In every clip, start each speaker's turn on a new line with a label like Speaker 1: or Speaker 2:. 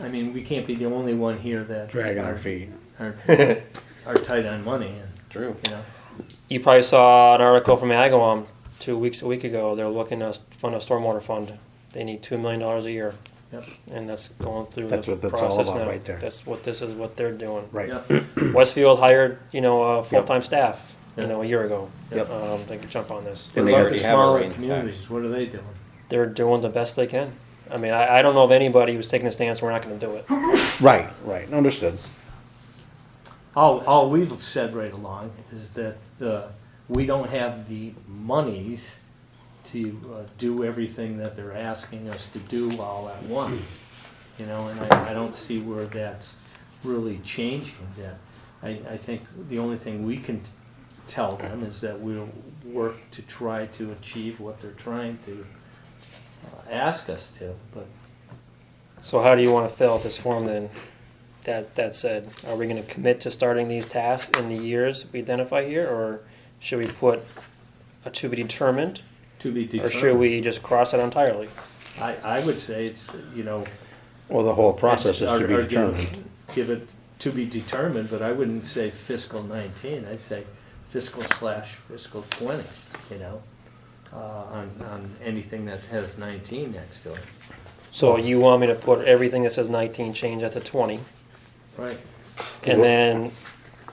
Speaker 1: I mean, we can't be the only one here that
Speaker 2: dragging our
Speaker 1: are-
Speaker 2: feet.
Speaker 1: are, are tight on money, and
Speaker 3: True.
Speaker 1: you know,
Speaker 4: You probably saw an article from Agawam two weeks, a week ago. They're looking to fund a stormwater fund. They need $2 million a year.
Speaker 1: Yep.
Speaker 4: And that's going through
Speaker 2: That's
Speaker 4: the
Speaker 2: what that's all
Speaker 4: process
Speaker 2: about
Speaker 4: now.
Speaker 2: right there.
Speaker 4: That's what this is what they're doing.
Speaker 2: Right.
Speaker 1: yep,
Speaker 4: Westfield hired, you know, uh, full-time staff, you
Speaker 1: Yep.
Speaker 4: know, a year ago.
Speaker 2: Yep.
Speaker 4: Um, they could jump on this.
Speaker 2: And
Speaker 1: What
Speaker 2: they
Speaker 1: about
Speaker 2: already
Speaker 1: the
Speaker 3: have a
Speaker 1: smaller
Speaker 3: rain tax.
Speaker 1: communities? What are they doing?
Speaker 4: They're doing the best they can. I mean, I, I don't know of anybody who's taking a stance, we're not gonna do it.
Speaker 2: Right, right, understood.
Speaker 1: All, all we've said right along is that uh, we don't have the monies to uh, do everything that they're asking us to do all at once. You know, and I, I don't see where that's really changing that. I, I think the only thing we can t- tell them is that we'll work to try to achieve what they're trying to uh, ask us to, but
Speaker 4: So how do you wanna fill out this form then? That, that said, are we gonna commit to starting these tasks in the years we identify here, or should we put a to be determined?
Speaker 1: to be
Speaker 4: Or
Speaker 1: determined.
Speaker 4: should we just cross it entirely?
Speaker 1: I, I would say it's, you know,
Speaker 2: Well, the whole process is
Speaker 1: That's-
Speaker 2: to be
Speaker 1: or- or give-
Speaker 2: determined.
Speaker 1: Give it to be determined, but I wouldn't say fiscal nineteen, I'd say fiscal slash fiscal twenty, you know? Uh, on, on anything that has nineteen next to it.
Speaker 4: So you want me to put everything that says nineteen, change that to twenty,
Speaker 1: Right.
Speaker 4: and then,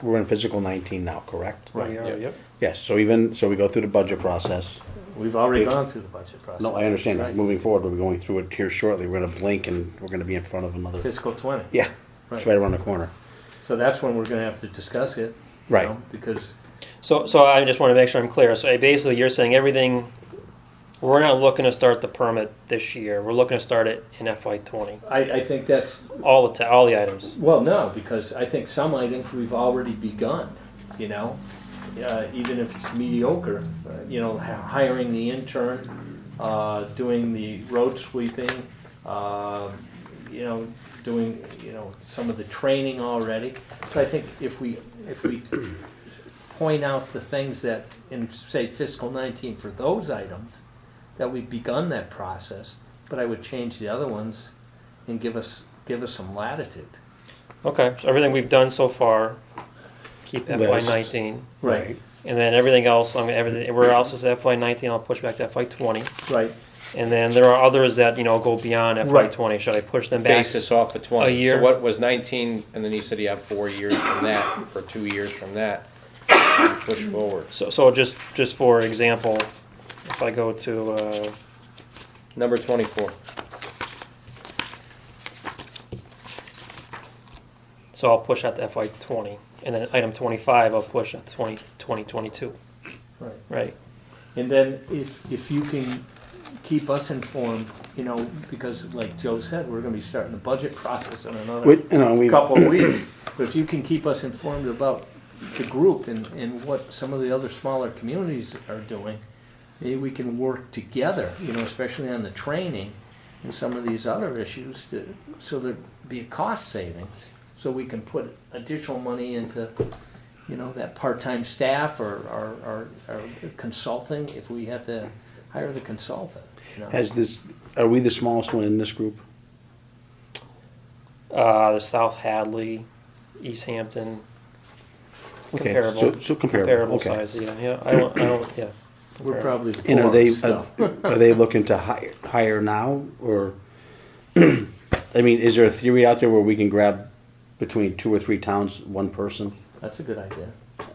Speaker 2: We're in physical nineteen now, correct?
Speaker 1: Right,
Speaker 4: we are,
Speaker 3: yeah.
Speaker 4: yep.
Speaker 2: Yes, so even, so we go through the budget process.
Speaker 1: We've already
Speaker 2: Wait.
Speaker 1: gone through the budget process.
Speaker 2: No, I understand that.
Speaker 1: Right.
Speaker 2: Moving forward, we're going through it here shortly. We're gonna blink and we're gonna be in front of another.
Speaker 1: Fiscal twenty.
Speaker 2: Yeah, it's right
Speaker 1: Right.
Speaker 2: around the corner.
Speaker 1: So that's when we're gonna have to discuss it. you
Speaker 2: Right.
Speaker 1: know, Because,
Speaker 4: So, so I just want to make sure I'm clear. So basically, you're saying everything, we're not looking to start the permit this year. We're looking to start it in FY twenty.
Speaker 1: I, I think that's,
Speaker 4: All the, ta- all the items.
Speaker 1: Well, no, because I think some items we've already begun, you know, uh, even if it's mediocre, uh, you know, h- hiring the intern, uh, doing the road sweeping, uh, you know, doing, you know, some of the training already. So I think if we, if we point out the things that in, say, fiscal nineteen for those items, that we've begun that process, but I would change the other ones and give us, give us some latitude.
Speaker 4: Okay, so everything we've done so far, keep FY
Speaker 2: List.
Speaker 4: nineteen.
Speaker 1: Right,
Speaker 4: And then everything else, I'm, everything, everywhere else is FY nineteen, I'll push back to FY twenty.
Speaker 1: right.
Speaker 4: And then there are others that, you know, go beyond FY
Speaker 1: Right.
Speaker 4: twenty. Should I push them back?
Speaker 3: Basis off of twenty.
Speaker 4: A year.
Speaker 3: So what was nineteen, and then you said you have four years from that, or two years from that, to push forward.
Speaker 4: So, so just, just for example, if I go to, uh,
Speaker 3: Number twenty-four.
Speaker 4: So I'll push out to FY twenty, and then item twenty-five, I'll push out to 20 2022,
Speaker 1: Right.
Speaker 4: right?
Speaker 1: And then if, if you can keep us informed, you know, because like Joe said, we're gonna be starting the budget process in
Speaker 2: We,
Speaker 1: another
Speaker 2: you know, we,
Speaker 1: couple of weeks. But if you can keep us informed about the group and, and what some of the other smaller communities are doing, maybe we can work together, you know, especially on the training and some of these other issues to, so there'd be a cost savings. So we can put additional money into you know, that part-time staff or, or, or- or consulting, if we have to hire the consultant, you know.
Speaker 2: has this, are we the smallest one in this group?
Speaker 4: Uh, there's South Hadley, East Hampton,
Speaker 2: Okay,
Speaker 4: comparable,
Speaker 2: so- So comparable,
Speaker 4: comparable
Speaker 2: okay.
Speaker 4: size, yeah, yeah, I don't, I don't, yeah.
Speaker 1: We're
Speaker 4: comparable.
Speaker 1: probably
Speaker 2: And are
Speaker 1: poor,
Speaker 2: they, uh,
Speaker 1: so.
Speaker 2: are they looking to hire, hire now, or? I mean, is there a theory out there where we can grab between two or three towns, one person?
Speaker 1: That's a good idea.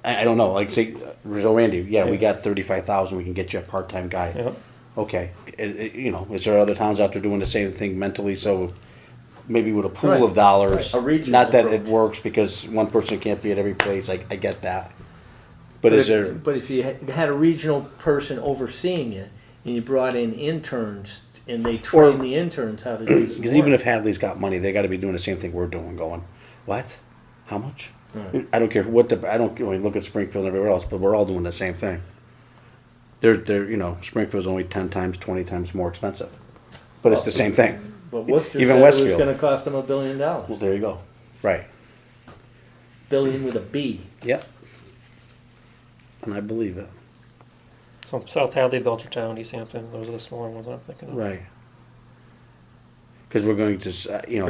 Speaker 2: I, I don't know, like, say, Rizzo Randy, yeah, we
Speaker 4: Yeah.
Speaker 2: got thirty-five thousand, we can get you a part-time guy.
Speaker 4: Yep.
Speaker 2: Okay, i- i- you know, is there other towns out there doing the same thing mentally, so maybe with a
Speaker 1: Right,
Speaker 2: pool of dollars?
Speaker 1: right, a regional
Speaker 2: Not that it
Speaker 1: approach.
Speaker 2: works, because one person can't be at every place, I, I get that. But is
Speaker 1: if-
Speaker 2: there,
Speaker 1: But if you ha- had a regional person overseeing it, and you brought in interns, and they trained the interns how to do the
Speaker 2: because even
Speaker 1: work.
Speaker 2: if Hadley's got money, they gotta be doing the same thing we're doing, going, what? How much?
Speaker 1: Right.
Speaker 2: I don't care what the, I don't, I mean, look at Springfield and everywhere else, but we're all doing the same thing. They're, they're, you know, Springfield's only ten times, twenty times more expensive, but it's the same thing.
Speaker 1: But Worcester
Speaker 2: even
Speaker 1: said it was
Speaker 2: Westfield.
Speaker 1: gonna cost them a billion
Speaker 2: Well,
Speaker 1: dollars,
Speaker 2: there you go. Right.
Speaker 1: billion with a B.
Speaker 2: Yep. And I believe it.
Speaker 4: So South Hadley, Belchertown, East Hampton, those are the smaller ones I'm thinking of.
Speaker 2: Right. Because we're going to, s- uh, you know,